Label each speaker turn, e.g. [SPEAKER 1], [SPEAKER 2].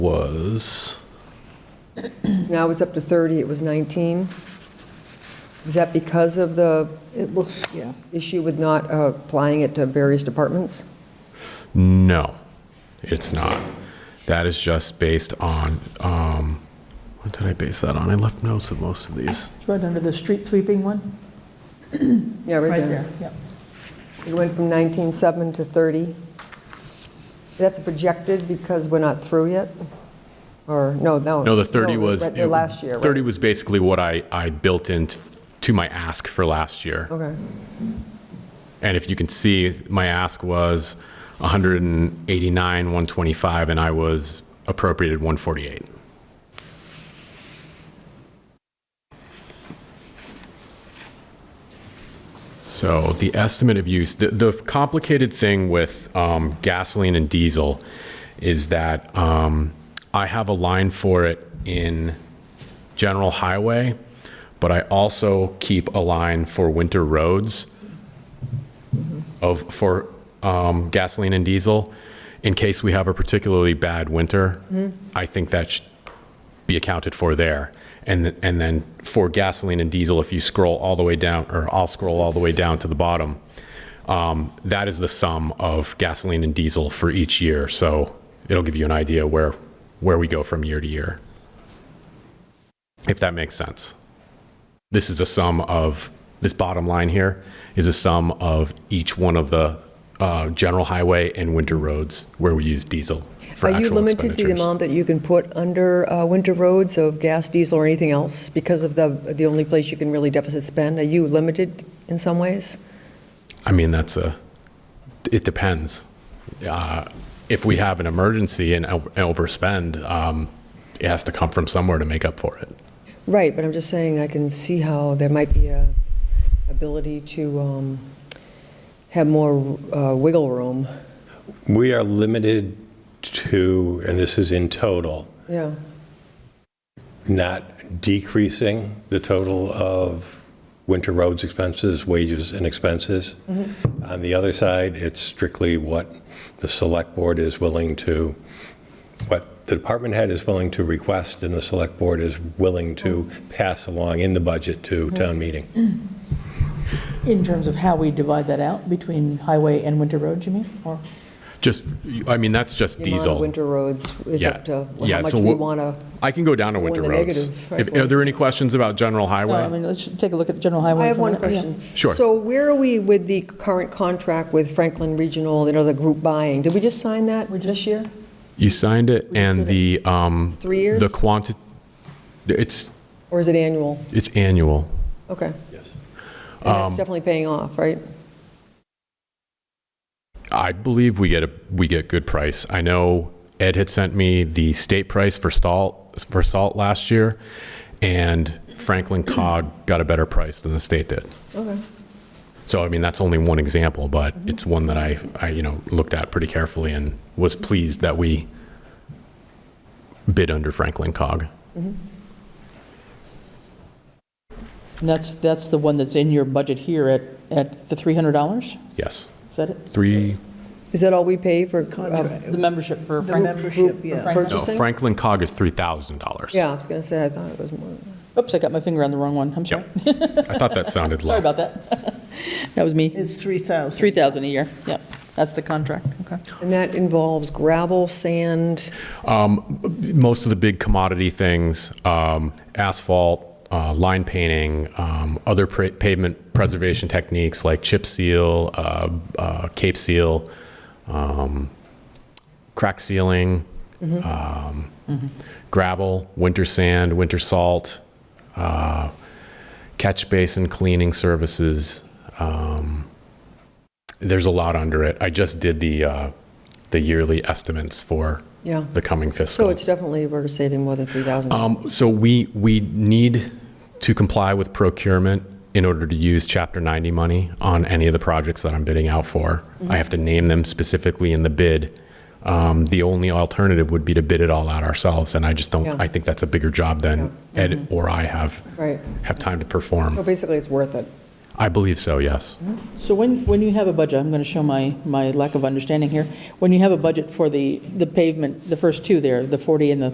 [SPEAKER 1] was,
[SPEAKER 2] Now it's up to 30, it was 19. Is that because of the
[SPEAKER 3] It looks, yeah.
[SPEAKER 2] issue with not uh, applying it to various departments?
[SPEAKER 1] no, it's not. That is just based on, um, what did I base that on? I left notes of most of these.
[SPEAKER 3] It's right under the street sweeping one,
[SPEAKER 2] Yeah,
[SPEAKER 3] right there, yeah.
[SPEAKER 2] It went from 19.7 to 30. That's projected because we're not through yet? Or, no, no.
[SPEAKER 1] No, the 30 was.
[SPEAKER 2] right, the Last year, right?
[SPEAKER 1] 30 was basically what I, I built into to my ask for last year.
[SPEAKER 2] Okay,
[SPEAKER 1] And if you can see, my ask was 189, 125, and I was appropriated 148. So the estimate of use, the, the complicated thing with um, gasoline and diesel is that um, I have a line for it in general highway, but I also keep a line for winter roads of, for um, gasoline and diesel, in case we have a particularly bad winter, I think that should be accounted for there. And, th- and then for gasoline and diesel, if you scroll all the way down, or I'll scroll all the way down to the bottom, um, that is the sum of gasoline and diesel for each year. So it'll give you an idea where, where we go from year to year. If that makes sense this is a sum of, this bottom line here is a sum of each one of the uh, general highway and winter roads where we use diesel for
[SPEAKER 2] Are you
[SPEAKER 1] actual
[SPEAKER 2] limited to the
[SPEAKER 1] expenditures.
[SPEAKER 2] amount that you can put under uh, winter roads of gas, diesel, or anything else because of the, the only place you can really deficit spend? Are you limited in some ways?
[SPEAKER 1] I mean, that's a, it depends. Uh, If we have an emergency and o- overspend, um, it has to come from somewhere to make up for it.
[SPEAKER 2] Right, but I'm just saying, I can see how there might be a ability to um, have more uh, wiggle room.
[SPEAKER 4] We are limited to, and this is in total,
[SPEAKER 2] Yeah,
[SPEAKER 4] not decreasing the total of winter roads expenses, wages and expenses. On the other side, it's strictly what the select board is willing to, what the department head is willing to request and the select board is willing to pass along in the budget to town meeting.
[SPEAKER 3] In terms of how we divide that out between highway and winter roads, you mean? Or,
[SPEAKER 1] Just, I mean, that's just
[SPEAKER 2] the amount of
[SPEAKER 1] diesel.
[SPEAKER 2] winter roads is
[SPEAKER 1] Yeah.
[SPEAKER 2] up to
[SPEAKER 1] Yeah,
[SPEAKER 2] how much
[SPEAKER 1] so
[SPEAKER 2] we
[SPEAKER 1] what-
[SPEAKER 2] want to,
[SPEAKER 1] I can go down to
[SPEAKER 2] Or
[SPEAKER 1] winter
[SPEAKER 2] the
[SPEAKER 1] roads.
[SPEAKER 2] negative,
[SPEAKER 1] If- Are there any questions about general
[SPEAKER 3] no, Oh, I
[SPEAKER 1] highway?
[SPEAKER 3] mean, let's take a look at general highway.
[SPEAKER 2] I have
[SPEAKER 3] for a
[SPEAKER 2] one
[SPEAKER 3] minute, yeah.
[SPEAKER 2] question.
[SPEAKER 1] Sure.
[SPEAKER 2] So where are we with the current contract with Franklin Regional, you know, the group buying? Did we just sign that this year?
[SPEAKER 1] You signed it and the, um,
[SPEAKER 2] three years?
[SPEAKER 1] The quanti, it's,
[SPEAKER 2] Or is it annual?
[SPEAKER 1] It's annual.
[SPEAKER 2] Okay,
[SPEAKER 4] Yes.
[SPEAKER 2] and
[SPEAKER 1] Um,
[SPEAKER 2] that's definitely paying off, right?
[SPEAKER 1] I believe we get a we get good price. I know Ed had sent me the state price for salt for salt last year, and Franklin Cog got a better price than the state did.
[SPEAKER 2] Okay.
[SPEAKER 1] So I mean that's only one example, but it's one that I, I you know looked at pretty carefully and was pleased that we bid under Franklin Cog.
[SPEAKER 3] And that's, that's the one that's in your budget here at, at the $300?
[SPEAKER 1] Yes,
[SPEAKER 3] Is that it?
[SPEAKER 1] three.
[SPEAKER 2] Is that all we pay for? uh,
[SPEAKER 3] The membership for
[SPEAKER 2] group-
[SPEAKER 3] Frank?
[SPEAKER 2] group
[SPEAKER 5] membership, yeah.
[SPEAKER 1] No,
[SPEAKER 2] Purchasing?
[SPEAKER 1] Franklin Cog is three thousand dollars.
[SPEAKER 2] Yeah, I was going to say, I thought it was more.
[SPEAKER 3] Oops, I got my finger on the wrong one, I'm sorry.
[SPEAKER 1] Yep. I thought that sounded low.
[SPEAKER 3] Sorry about that. That was me.
[SPEAKER 5] It's 3,000.
[SPEAKER 3] 3,000 a year, yep, that's the contract, okay.
[SPEAKER 2] And that involves gravel, sand,
[SPEAKER 1] most of the big commodity things, um, asphalt, uh, line painting, um, other pra- pavement preservation techniques like chip seal, uh, uh, cape seal, um, crack sealing,
[SPEAKER 2] Mm-hmm.
[SPEAKER 1] um, gravel, winter sand, winter salt, uh, catch basin cleaning services. Um, there's a lot under it. I just did the uh, the yearly estimates for
[SPEAKER 2] yeah.
[SPEAKER 1] the coming
[SPEAKER 2] So
[SPEAKER 1] fiscal.
[SPEAKER 2] it's definitely, we're saving more than 3,000.
[SPEAKER 1] Um, So we, we need to comply with procurement in order to use Chapter 90 money on any of the projects that I'm bidding out for. I have to name them specifically in the bid. Um, The only alternative would be to bid it all out ourselves, and I just don't,
[SPEAKER 2] Yeah.
[SPEAKER 1] I think that's a bigger job than Ed or I have,
[SPEAKER 2] Right.
[SPEAKER 1] have time to perform.
[SPEAKER 2] So basically, it's worth it.
[SPEAKER 1] I believe so, yes.
[SPEAKER 3] So when, when you have a budget, I'm going to show my, my lack of understanding here. When you have a budget for the, the pavement, the first two there, the 40 and the